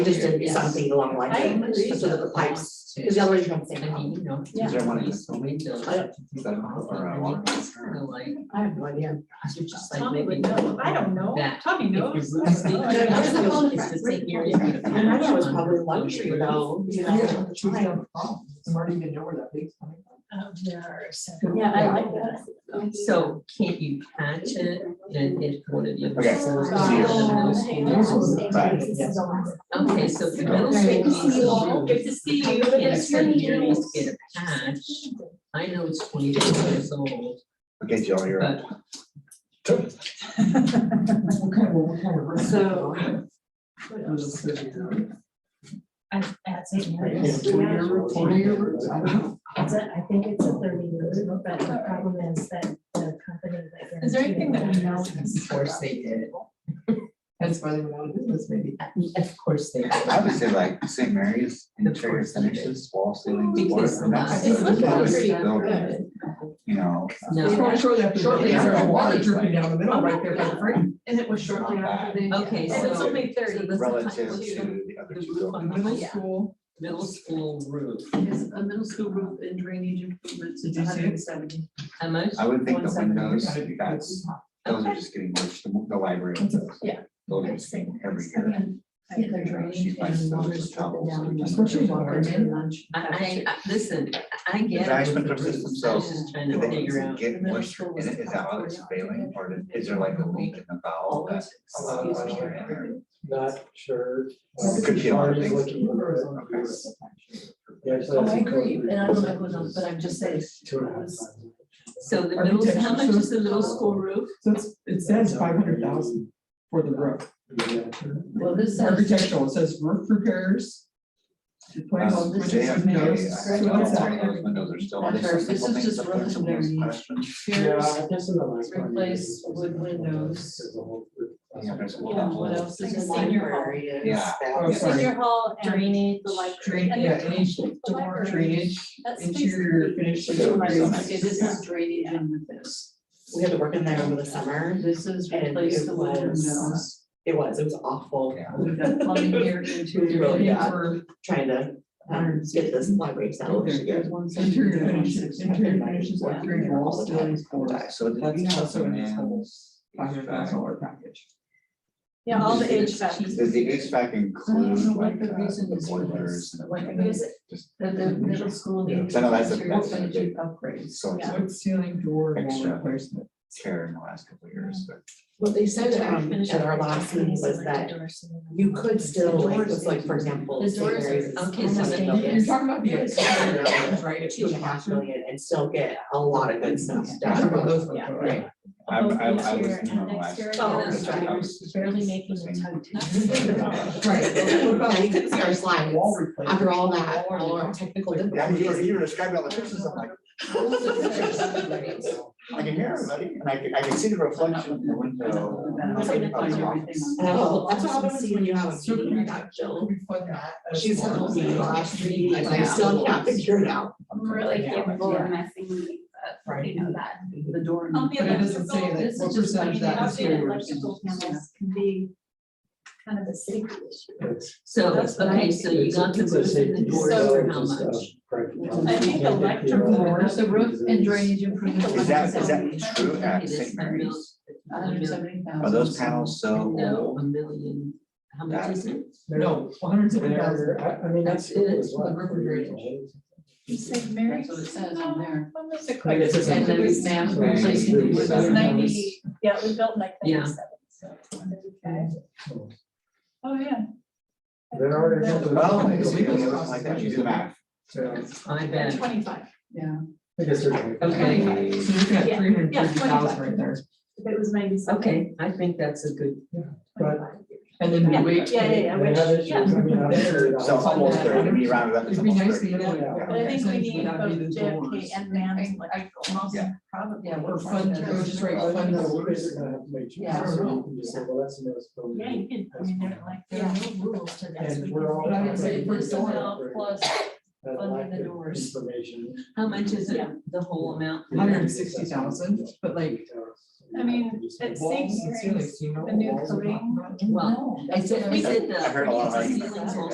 just did Yes. something along the lines. I of- agree. So that the pipes, because otherwise you don't think. I mean, you know. Is there one in this I- Like, I have no idea. you're just like Tommy maybe. would know, I don't know, That Tommy If knows. your roof I leaks, don't know. There- there's a phone it's just right? like here, you're gonna I mean, that was patch probably on luxury your though, you know, at Yeah, the she's got time. a problem. Marty didn't know where that leak's coming from. Oh, there are some- Yeah, I like roof. So can't you patch it and if one of you. Okay. Okay, so for those Good to things, see you all. Good to see you. in certain areas get a patch, I know it's twenty years old, Okay, Jill, you're up. but What kind of, what kind of risk? So- It was a city, right? I, that's it, yeah, uh, Like, it is. it's twenty year, twenty year, I don't know. It's a, I think it's a thirty year, but the problem is that the company that. Is there anything that we know? of course they did, That's why they went out of business, maybe. of course they did. I would say like St. Mary's interior finishes, wall ceilings. Because floor, and that's- it's looking that's pretty still, good. You know. uh, No, Shortly after, shortly after, water dripping down the middle, right there by the frame. And it was shortly after they. okay, And it's so only thirty. the- Relative to Let's look the other the two roof on buildings. the Middle Yeah. school middle school roof, is a middle school roof and drainage improvements, Did you see it? hundred and seventy. how much? I would think the 170. windows, that's, those are just getting worse, the the library. windows. Yeah. Those are just getting every year. They're She draining likes and those water's troubles. dropping down. That's what she's Or wondering. did lunch. I, I, I- listen, I I get. it. management purposes themselves, I was just trying Do to they figure out. get worse in it? Is that why it's failing or is there like a leak in the Oh, valve that allows moisture in there? Not sure. It could be a lot of things. Looking for it. Yeah, so Oh, it's I agree, incorporated. and I don't know who's on, but I'm just saying. Two and a half times. So the middle, how much is the middle school roof? So it's, it says five hundred thousand for the roof. Well, this says. Architectural, it says roof repairs. The plan Um, on which They have, is they, I notes, don't know what's if any that? of those windows are still. That's there's right. This simple is things, just but there's some of those relatively- questions. Yeah, Fierce. I guess in the last one, Replace wood windows. there's a whole group. Yeah, there's a lot. Yeah, what else Like is a in senior there? hall. Yeah. Oh, sorry. Senior hall and Drainage. the library. Drain, And yeah, the- any the library. drainage, That's interior finish. But there would be some- Okay, this is drainage in with this. We had to work in there over the summer. This is And replace it the wood was- windows. It was, it was awful. Yeah. We've got plumbing here, interior. Really bad. For Trying to, um, get this library sound. Okay. together. interior finishes, interior finishes, like three walls, ceilings, floors. So did we That's have also some in this in? whole five hundred thousand dollar package. Yeah, all the HVAC. Does the HVAC I don't include know like what uh, the reason the is for boilers? this. Like, and because everything? it- Just the, the middle school Yeah. needs So, no, that's a- interior that's a furniture big- upgrades. So it's Yeah. a Wood ceiling door wall Extra. replacement. tear in the last couple of years, but. What they said, um, at our last meeting was that you could still, like, it's like, for example, The St. doors are- Mary's. is okay, so almost the- built in You're talking about the exterior, Yeah. right? It's Two and a half bathroom. million and still get a lot of good stuff You're talking about done. those ones, Yeah. right? Oh, I, I, I was interior in on and the last. exterior. Oh, year, that's I right. was just Barely making the saying- tug. Right. What about Yeah, you couldn't see our slides wall replacement? after all that, all our technical Yeah, you difficulties. you were describing all the pictures, I'm like, I can hear everybody, and I can, I can see the reflection in the window. I'm It's like, gonna find oh, wow. everything on And I was- that's what happens when you have a So meeting, we- you got It'll Jill. be fun to add as She's well. told me the last meeting, and I still can't figure it out. Really capable of messing Right. you know that. the door. On But it doesn't say like This what is just percentage that like the is outdated here. Electrical panels can be kind of a safety issue. So, That's what okay, I- so you got the It's roof a and the safety doors issue, for it's how just, uh, much? practical. I think You can't get the electrical, other the roof and reasons. drainage improvements. Is that, is that true Okay, at that's St. a mil- Mary's? a mil- Are those panels so No, old? a million, how much is it? No, one hundred seventy thousand. They're- I, I mean, that's. That's it, it's the refrigeration. You said Mary's? That's what it says on there. I guess it's. And then it's- Sam it's- replacing the wood. it's- Ninety. Yeah, we built like Yeah. ninety-seven, so. Okay. Oh, yeah. There are. Well, it's legal, it looks like that, you do the math. Yeah, I bet. Twenty-five. Yeah. I guess there's. Okay. So you're looking at Yeah, three hundred yeah, fifty thousand right there. If it was ninety-seven. Okay, I think that's a good, But- 25. And then Yeah, we wait. Yeah, yeah, yeah, They have which, issues, yeah, I mean, I'm sure. So it's almost thirty, when you round it up, it's It'd be almost nice to thirty. get Yeah. like. but I think we percentage need without both needing the JFK doors. and Rand, like, Most Yeah. probably. Yeah, we're fun to, we're just right, Well, I fun think to. the lawyers are gonna have to make Yeah. choices, so you can just say, well, that's a no, it's probably- Yeah, you could, I mean, they're like, there are no rules to this. And we're all. But I would say if we're still Personnel plus that Under lack the of doors. Information. How much is it, the whole amount? Hundred and sixty thousand, but like. I mean, it walls, seems it's like, you know, the new walls are not- coding Well, I said, we did the. I've heard a lot of ceilings arguments. will